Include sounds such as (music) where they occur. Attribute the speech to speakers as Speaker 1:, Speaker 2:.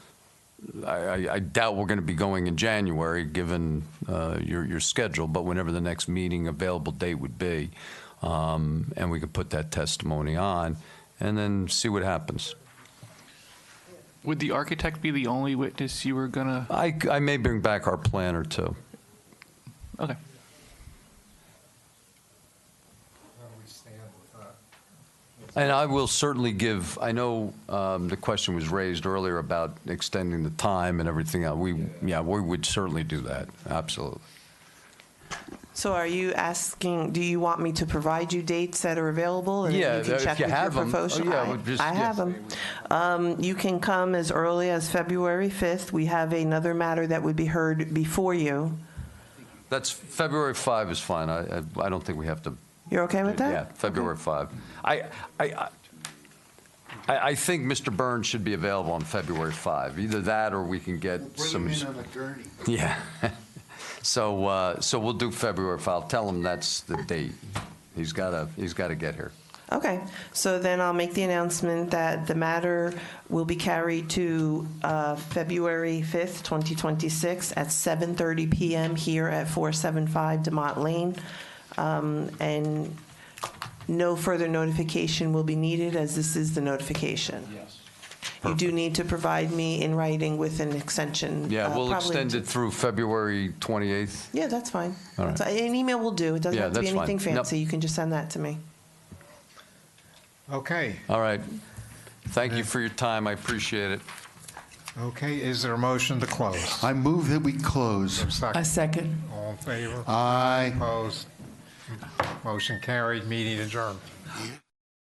Speaker 1: I, I- I doubt we're going to be going in January, given uh, your, your schedule, but whenever the next meeting available date would be, um, and we could put that testimony on, and then see what happens.
Speaker 2: Would the architect be the only witness you were gonna?
Speaker 1: I, I may bring back our plan or two.
Speaker 2: Okay.
Speaker 1: And I will certainly give, I know um, the question was raised earlier about extending the time and everything. else. We, yeah, we would certainly do that, absolutely.
Speaker 3: So are you asking, do you want me to provide you dates that are available? and then
Speaker 1: Yeah,
Speaker 3: you can
Speaker 1: if
Speaker 3: check
Speaker 1: you
Speaker 3: with your
Speaker 1: have 'em. Oh,
Speaker 3: profession-
Speaker 1: yeah,
Speaker 3: I-
Speaker 1: well, just-
Speaker 3: I
Speaker 1: yeah.
Speaker 3: have them. Um, You can come as early as February 5th. We have another matter that would be heard before you.
Speaker 1: That's, February 5 is fine. I, I- I don't think we have to
Speaker 3: You're okay with that?
Speaker 1: Yeah, February 5. I, I, I- I, I think Mr. Burns should be available on February 5. Either that or we can get some.
Speaker 4: Bring him
Speaker 1: (laughs)
Speaker 4: in on a gurney.
Speaker 1: Yeah. So, uh, so we'll do February 5. I'll Tell him that's the date. He's gotta, he's gotta get here.
Speaker 3: Okay, so then I'll make the announcement that the matter will be carried to uh, February 5th, 2026, at 7:30 PM here at 475 Demont Lane. Um, And no further notification will be needed, as this is the notification. Yes. You do need to provide me in writing with an extension.
Speaker 1: Yeah,
Speaker 3: uh,
Speaker 1: we'll
Speaker 3: probably-
Speaker 1: extend it through February 28th.
Speaker 3: Yeah, that's fine.
Speaker 1: All right.
Speaker 3: That's- An email will do, it doesn't
Speaker 1: Yeah,
Speaker 3: have to be
Speaker 1: that's fine.
Speaker 3: anything
Speaker 1: Nope.
Speaker 3: fancy, you can just send that to me.
Speaker 4: Okay,
Speaker 1: All right. Thank you for your time. I appreciate it.
Speaker 4: okay, is there a motion to close?
Speaker 5: I move that we close.
Speaker 4: Second.
Speaker 3: second.
Speaker 4: All in favor?
Speaker 5: Aye.
Speaker 4: Opposed? Motion carried, meeting adjourned.